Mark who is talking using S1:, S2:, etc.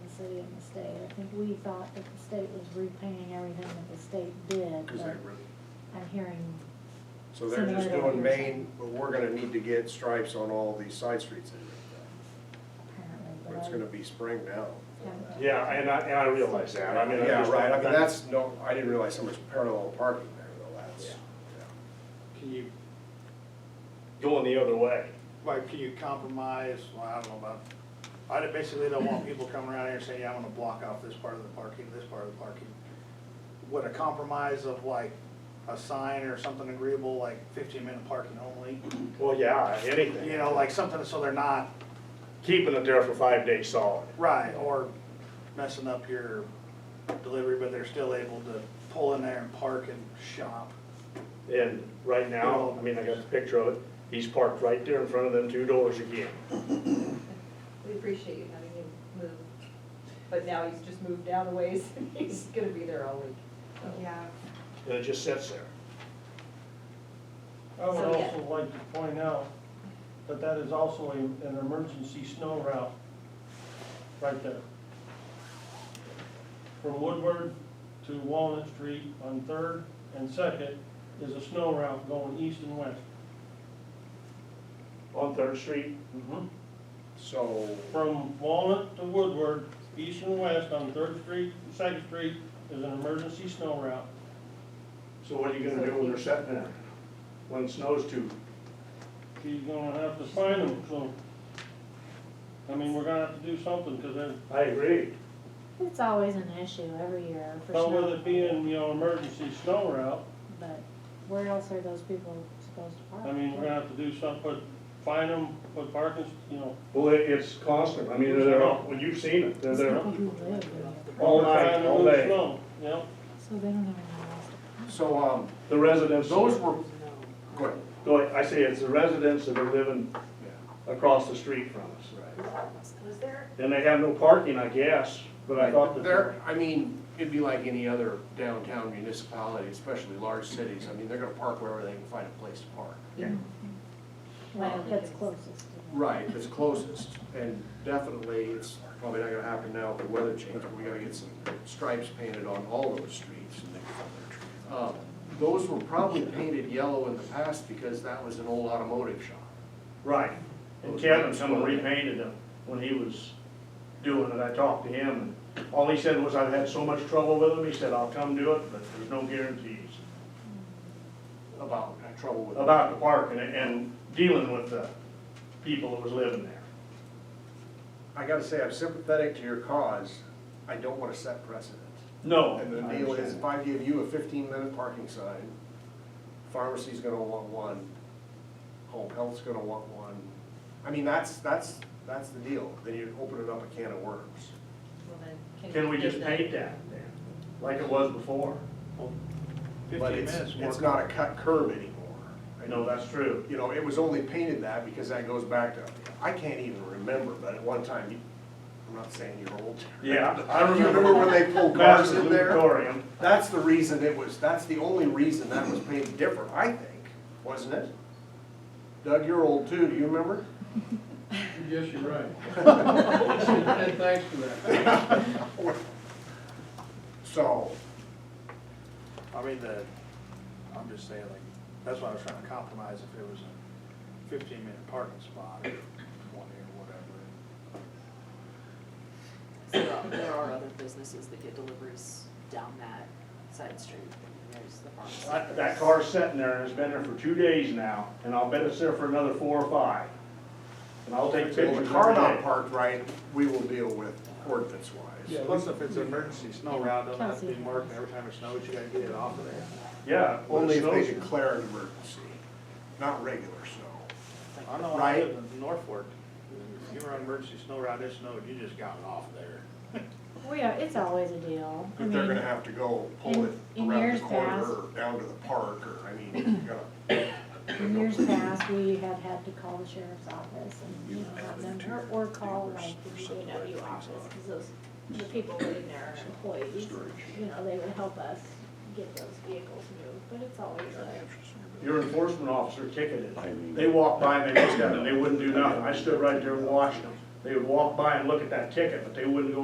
S1: city and the state. I think we thought that the state was repaying everything that the state did, but
S2: Is that really?
S1: I'm hearing,
S2: So they're just
S1: Similar to what
S2: doing
S1: you're
S2: main, but we're gonna need to get stripes on all these side streets in
S1: apparently,
S2: But it's gonna
S1: but
S2: be spring now.
S1: Yeah.
S3: Yeah, and I, and I realize that, I mean. I
S2: Yeah,
S3: just-
S2: right, I mean, that's, no, I didn't realize so much parallel parking there, though, that's,
S3: Yeah.
S2: yeah.
S4: Can you,
S3: Going the other way.
S4: like, can you compromise, well, I don't know about, I basically don't want people coming around here and saying, yeah, I'm gonna block off this part of the parking, this part of the parking. Would a compromise of like a sign or something agreeable, like fifteen minute parking only?
S3: Well, yeah, anything.
S4: You know, like something so they're not,
S3: Keeping it there for five days solid.
S4: right, or messing up your delivery, but they're still able to pull in there and park and shop.
S3: And right now, I mean, I got the picture of it, he's parked right there in front of them two doors again.
S5: We appreciate you having him move, but now he's just moved down a ways, and he's gonna be there all week.
S6: Yeah,
S3: And it just sits there.
S7: I would
S5: So, yeah.
S7: also like to point out that that is also a- an emergency snow route, right there. From Woodward to Walnut Street on Third and Second is a snow route going east and west.
S3: On Third Street,
S2: So,
S7: From Walnut to Woodward, east and west on Third Street, and Second Street is an emergency snow route.
S3: so what are you gonna do when they're sitting there? When it snows too?
S7: She's gonna have to find them, so, I mean, we're gonna have to do something, because they're
S3: I agree.
S1: it's always an issue every year for
S7: Well, with
S1: sure.
S7: it being, you know, emergency snow route,
S1: But where else are those people supposed to park?
S7: I mean, we're gonna have to do some, put, fine them, put parking, you know.
S3: Well, it, it's constant, I mean, they're, well, you've seen it, they're
S1: These
S3: there
S1: people who live there,
S3: all
S7: trying
S3: night,
S7: to
S3: all
S7: move
S3: day.
S7: snow, You know,
S1: So they don't have anywhere else to
S2: so, um,
S3: The residents,
S2: those were, go ahead.
S3: go ahead. I say it's the residents that are living across the street from us.
S6: was there,
S3: And they have no parking, I guess, but I thought that.
S2: They're, I mean, it'd be like any other downtown municipality, especially large cities, I mean, they're gonna park wherever they can find a place to park.
S1: park. Well, that's closest to them.
S2: Right, it's closest, and definitely, it's probably not gonna happen now with the weather change, but we gotta get some stripes painted on all those streets. Uh, Those were probably painted yellow in the past because that was an old automotive shop.
S3: Right, and Kevin, someone repainted them when he was doing it, I talked to him, and all he said was, I've had so much trouble with them, he said, I'll come do it, but there's no guarantees
S2: About, trouble with.
S3: about the parking and dealing with the people that was living there.
S2: I gotta say, I'm sympathetic to your cause, I don't wanna set precedent.
S3: No.
S2: And the
S3: I
S2: deal is,
S3: understand.
S2: if I give you a fifteen-minute parking sign, pharmacy's gonna want one, home health's gonna want one. I mean, that's, that's, that's the deal, then you're opening up a can of worms.
S5: Well, then,
S3: Can we
S5: give
S3: just
S5: them-
S3: paint that then, like it was before?
S2: But
S4: Fifteen
S2: it's,
S4: minutes.
S2: it's not a cut curve anymore.
S3: I know that's true.
S2: You know, it was only painted that because that goes back to, I can't even remember, but at one time, you- I'm not saying you're old.
S3: Yeah, I
S2: I remember when they pulled cars
S3: Master
S2: in there.
S3: Luditorium,
S2: That's the reason it was, that's the only reason that was painted different, I think, wasn't it? Doug, you're old too, do you remember?
S8: Yes, you're right. And thanks for that.
S2: So,
S4: I mean, the, I'm just saying, like, that's why I was trying to compromise if it was a fifteen minute parking spot or one or
S9: There are- There are other businesses that get deliveries down that side street, and there's the pharmacy.
S3: That that car's sitting there and it's been there for two days now, and I'll bet it's there for another four or five. And I'll take
S2: if the
S3: pictures
S2: car
S3: every
S2: not
S3: day.
S2: parked right, we will deal with ordinance wise.
S4: whatever. Plus, if it's an emergency snow route, doesn't have to be
S1: Kelsey.
S4: marked, and every time it snows, you gotta get it off of there.
S3: Yeah. when
S2: Only
S3: it
S2: if they
S3: snows.
S2: declare an emergency, not regular snow.
S4: I know, I
S2: Right.
S4: live in Norfolk, if you were on an emergency snow route, it snowed, you just got it off there.
S1: We are, it's always a deal. I
S2: If they're
S1: mean,
S2: gonna have to go pull it
S1: in- in
S2: around the
S1: years
S2: corner
S1: past-
S2: or down to the park, or, I mean, you gotta
S1: In years past, we had had to call the sheriff's office and, you know, have them, or- or call like the DPW office, because those, the people living there are employees. You know, they would help us get those vehicles moved, but it's always a,
S3: Your enforcement officer ticketed. They walked by and they looked at it and they wouldn't do nothing. I stood right there and watched them. They would walk by and look at that ticket, but they wouldn't go